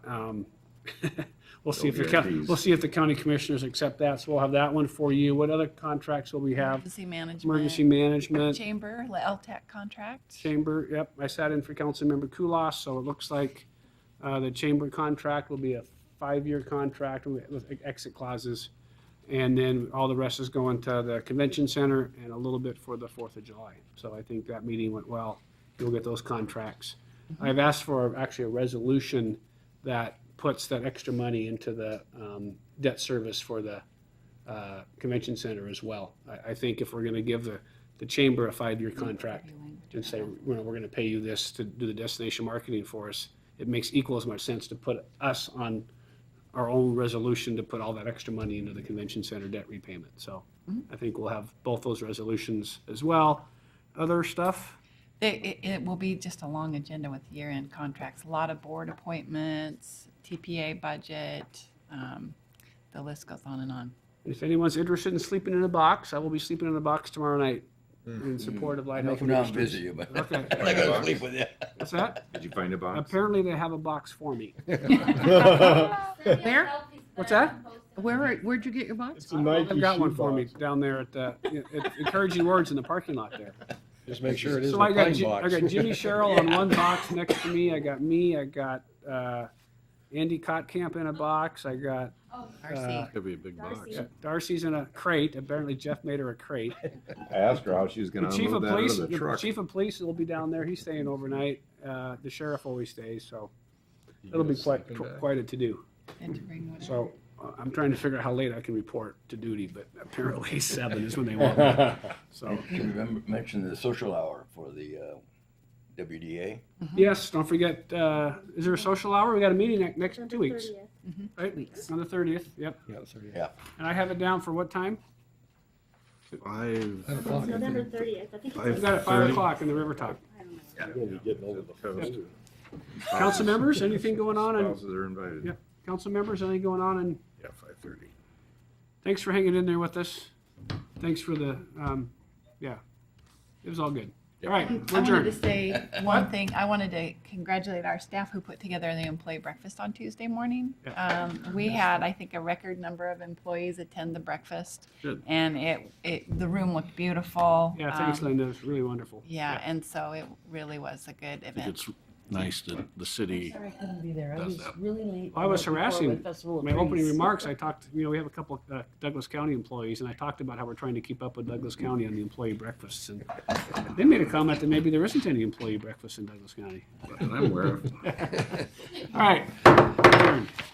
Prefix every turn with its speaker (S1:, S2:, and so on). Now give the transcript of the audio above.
S1: Um, We'll see if the,
S2: No
S1: coun-
S2: guarantees.
S1: we'll see if the county commissioners accept that, so we'll have that one for you. What other contracts will we have?
S3: Emergency management.
S1: Emergency management,
S3: Chamber, LTAC contract.
S1: chamber, yep, I sat in for Councilmember Kulas, so it looks like uh, the chamber contract will be a five-year contract with with exit clauses. And then all the rest is going to the convention center and a little bit for the Fourth of July. So I think that meeting went well. You'll get those contracts. I've asked for actually a resolution that puts that extra money into the um, debt service for the uh, convention center as well. I, I think if we're going to give the, the chamber a five-year contract and say, you know, we're going to pay you this to do the destination marketing for us, it makes equal as much sense to put us on our own resolution to put all that extra money into the convention center debt repayment. So I think we'll have both those resolutions as well. Other stuff?
S3: It, it- it will be just a long agenda with year-end contracts, a lot of board appointments, TPA budget, um, the list goes on and on.
S1: If anyone's interested in sleeping in a box, I will be sleeping in a box tomorrow night in support of Light
S4: I'll
S1: Health.
S4: come down and
S1: Ministries.
S4: visit you, but
S1: Okay.
S4: I'm not gonna sleep with you.
S1: What's that?
S2: Did you find a box?
S1: Apparently they have a box for me.
S5: Where?
S1: What's that?
S6: Where, are- where'd you get your box?
S7: It's a Nike
S1: They've got one for me
S7: shoebox.
S1: down there at, uh, at encouraging words in the parking lot there.
S7: Just make sure it isn't
S1: So
S7: a
S1: I got,
S7: pine
S1: Ji- I
S7: box.
S1: got Jimmy Sherrill on one box next to me. I got me, I got, uh, Andy Cotcamp in a box. I got
S3: RC.
S2: Could be a big box.
S5: Darcy.
S1: Darcy's in a crate. Apparently Jeff made her a crate.
S2: I asked her how she was
S1: The
S2: gonna
S1: chief of
S2: unload that out
S1: police,
S2: of the
S1: the
S2: truck.
S1: chief of police will be down there. He's staying overnight. Uh, the sheriff always stays, so it'll be quite, quite a to-do.
S3: And to bring whatever.
S1: So uh, I'm trying to figure out how late I can report to duty, but apparently seven is when they want me. So,
S4: Oh, You remember, mentioned the social hour for the uh, WDA.
S1: yes, don't forget, uh, is there a social hour? We got a meeting ne- next two weeks, right? On the thirtieth, yep.
S7: Yeah, so yeah.
S4: Yeah.
S1: And I have it down for what time?
S2: Five.
S5: It's November thirtieth, I think.
S2: Five
S1: We
S5: it's-
S1: got it at five
S2: 30.
S1: o'clock in the River Talk.
S5: I don't know.
S7: You're gonna be getting over the
S2: Toast.
S7: coast.
S1: Council members, anything going on? in-
S2: Spouses are invited.
S1: Yep. Council members, anything going on? And
S2: Yeah, five thirty.
S1: thanks for hanging in there with us. Thanks for the, um, yeah, it was all good. All right,
S3: I
S1: we're
S3: wanted to
S1: adjourned.
S3: say one thing. I wanted to congratulate our staff who put together the employee breakfast on Tuesday morning. Um, We had, I think, a record number of employees attend the breakfast.
S2: Good.
S3: And it, it, the room looked beautiful.
S1: Yeah, thanks,
S3: Um,
S1: Linda. It was really wonderful.
S3: Yeah, and so it really was a good
S8: think
S3: event.
S8: it's nice that the city
S6: Sorry I couldn't be there. I
S8: Does
S6: was
S8: that.
S6: really late.
S1: I was
S6: for the
S1: harassing
S6: Portland Festival of
S1: My opening
S6: Trees.
S1: remarks, I talked, you know, we have a couple uh, Douglas County employees, and I talked about how we're trying to keep up with Douglas County on the employee breakfasts. And they made a comment that maybe there isn't any employee breakfast in Douglas County.
S2: And I'm aware of.
S1: All right,